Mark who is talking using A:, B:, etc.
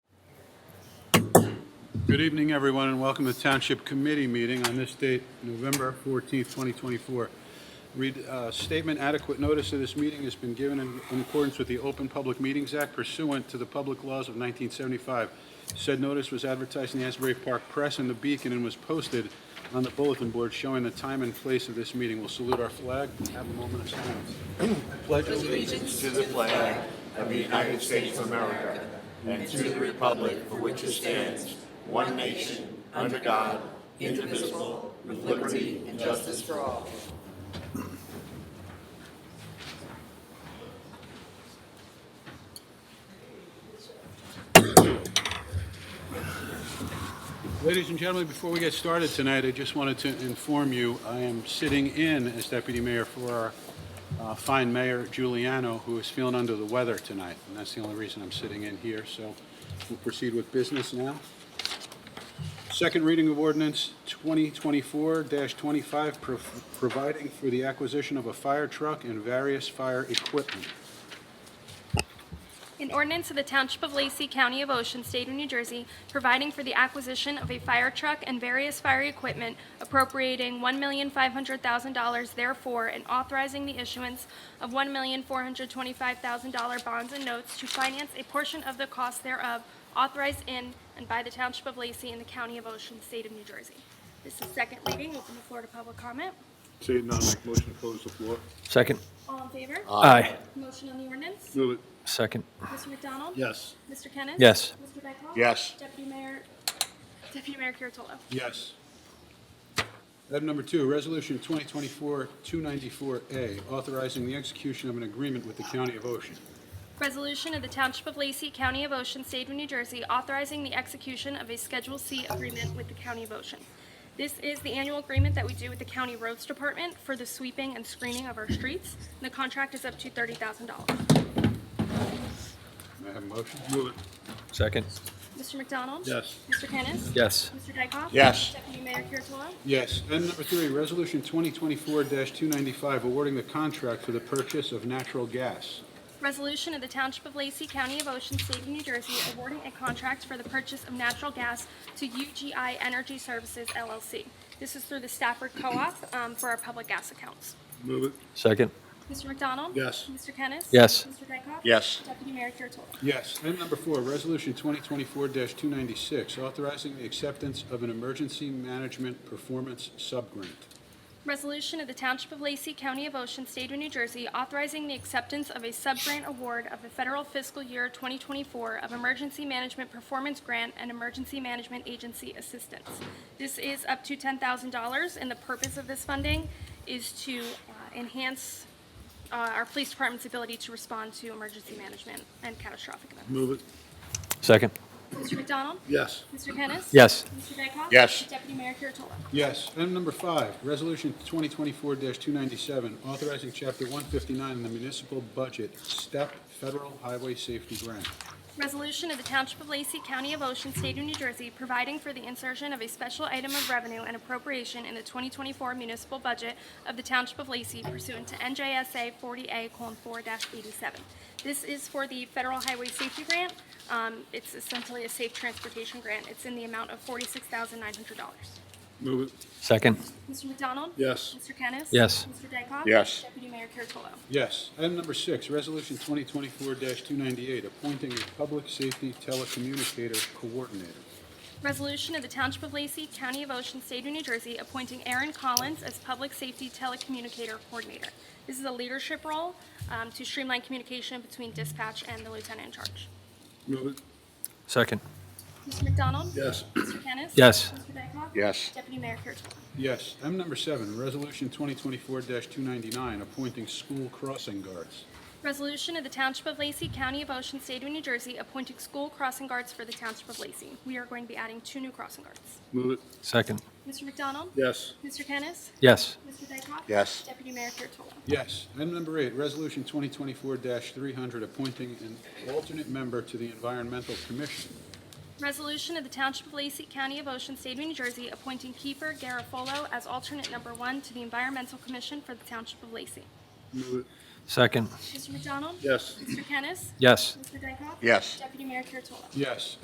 A: Good evening, everyone, and welcome to Township Committee meeting on this date, November 14th, 2024. Read, uh, statement adequate notice of this meeting has been given in in accordance with the Open Public Meetings Act pursuant to the public laws of 1975. Said notice was advertised in the Asbury Park Press and the Beacon and was posted on the bulletin board showing the time and place of this meeting. We'll salute our flag and have a moment of silence. I Pledge allegiance
B: to the flag of the United States of America and to the republic for which it stands, one nation, under God, indivisible, with liberty and justice for all.
A: Ladies and gentlemen, before we get started tonight, I just wanted to inform you, I am sitting in as deputy mayor for our uh, fine mayor Giuliano, who is feeling under the weather tonight, and that's the only reason I'm sitting in here, so we'll proceed with business now. Second reading of ordinance 2024-25, prov- providing for the acquisition of a fire truck and various fire equipment.
C: An ordinance of the Township of Lacey, County of Ocean, State of New Jersey, providing for the acquisition of a fire truck and various fire equipment, appropriating $1,500,000 therefore, and authorizing the issuance of $1,425,000 bonds and notes to finance a portion of the cost thereof, authorized in and by the Township of Lacey and the County of Ocean, State of New Jersey. This is second reading. Open the floor to public comment.
D: Seeing none, make a motion to close the floor.
E: Second.
C: All in favor?
E: Aye.
C: Motion on the ordinance?
D: Move it.
E: Second.
C: Mr. McDonald?
A: Yes.
C: Mr. Kennis?
E: Yes.
C: Mr. Dykoff?
B: Yes.
C: Deputy Mayor, Deputy Mayor Kuratolo?
A: Yes. Item number two, Resolution 2024-294A, authorizing the execution of an agreement with the County of Ocean.
C: Resolution of the Township of Lacey, County of Ocean, State of New Jersey, authorizing the execution of a Schedule C agreement with the County of Ocean. This is the annual agreement that we do with the County Roads Department for the sweeping and screening of our streets. The contract is up to $30,000.
A: May I have a motion?
D: Move
E: Second.
C: Mr. McDonald?
A: Yes.
C: Mr. Kennis?
E: Yes.
C: Mr. Dykoff?
B: Yes.
C: Deputy Mayor Kuratolo?
A: Yes. Item number three, Resolution 2024-295, awarding the contract for the purchase of natural gas.
C: Resolution of the Township of Lacey, County of Ocean, State of New Jersey, awarding a contract for the purchase of natural gas to UGI Energy Services LLC. This is through the Stafford Co-op um, for our public gas accounts.
D: it. Move it.
E: Second.
C: Mr. McDonald?
A: Yes.
C: Mr. Kennis?
E: Yes.
C: Mr. Dykoff?
B: Yes.
C: Deputy Mayor Kuratolo?
A: Yes. Item number four, Resolution 2024-296, authorizing the acceptance of an emergency management performance subgrant.
C: Resolution of the Township of Lacey, County of Ocean, State of New Jersey, authorizing the acceptance of a sub-grant award of the federal fiscal year 2024 of Emergency Management Performance Grant and Emergency Management Agency Assistance. This is up to $10,000, and the purpose of this funding is to uh, enhance uh, our police department's ability to respond to emergency management and catastrophic events.
D: Move it.
E: Second.
C: Mr. McDonald?
D: Yes.
C: Mr. Kennis?
E: Yes.
C: Mr. Dykoff?
B: Yes.
C: Deputy Mayor Kuratolo?
A: Yes. Item number five, Resolution 2024-297, authorizing Chapter 159 in the municipal budget, STEP Federal Highway Safety Grant.
C: Resolution of the Township of Lacey, County of Ocean, State of New Jersey, providing for the insertion of a special item of revenue and appropriation in the 2024 municipal budget of the Township of Lacey pursuant to NJSA 40A:4-87. This is for the Federal Highway Safety Grant. Um, It's essentially a safe transportation grant. It's in the amount of $46,900.
D: Move it.
E: Second.
C: Mr. McDonald?
D: Yes.
C: Mr. Kennis?
E: Yes.
C: Mr. Dykoff?
B: Yes.
C: Deputy Mayor Kuratolo?
A: Yes. Item number six, Resolution 2024-298, appointing a public safety telecommunicator coordinator.
C: Resolution of the Township of Lacey, County of Ocean, State of New Jersey, appointing Aaron Collins as Public Safety Telecommunicator Coordinator. This is a leadership role um, to streamline communication between dispatch and the lieutenant in charge.
D: Move it.
E: Second.
C: Mr. McDonald?
D: Yes.
C: Mr. Kennis?
E: Yes.
C: Mr. Dykoff?
B: Yes.
C: Deputy Mayor Kuratolo?
A: Yes. Item number seven, Resolution 2024-299, appointing school crossing guards.
C: Resolution of the Township of Lacey, County of Ocean, State of New Jersey, appointing school crossing guards for the Township of Lacey. We are going to be adding two new crossing guards.
D: Move it.
E: Second.
C: Mr. McDonald?
D: Yes.
C: Mr. Kennis?
E: Yes.
C: Mr. Dykoff?
B: Yes.
C: Deputy Mayor Kuratolo?
A: Yes. Item number eight, Resolution 2024-300, appointing an alternate member to the Environmental Commission.
C: Resolution of the Township of Lacey, County of Ocean, State of New Jersey, appointing Kiefer Garofolo as alternate number one to the Environmental Commission for the Township of Lacey.
D: Move it.
E: Second.
C: Mr. McDonald?
D: Yes.
C: Mr. Kennis?
E: Yes.
C: Mr. Dykoff?
B: Yes.
C: Deputy Mayor Kuratolo?
A: Yes.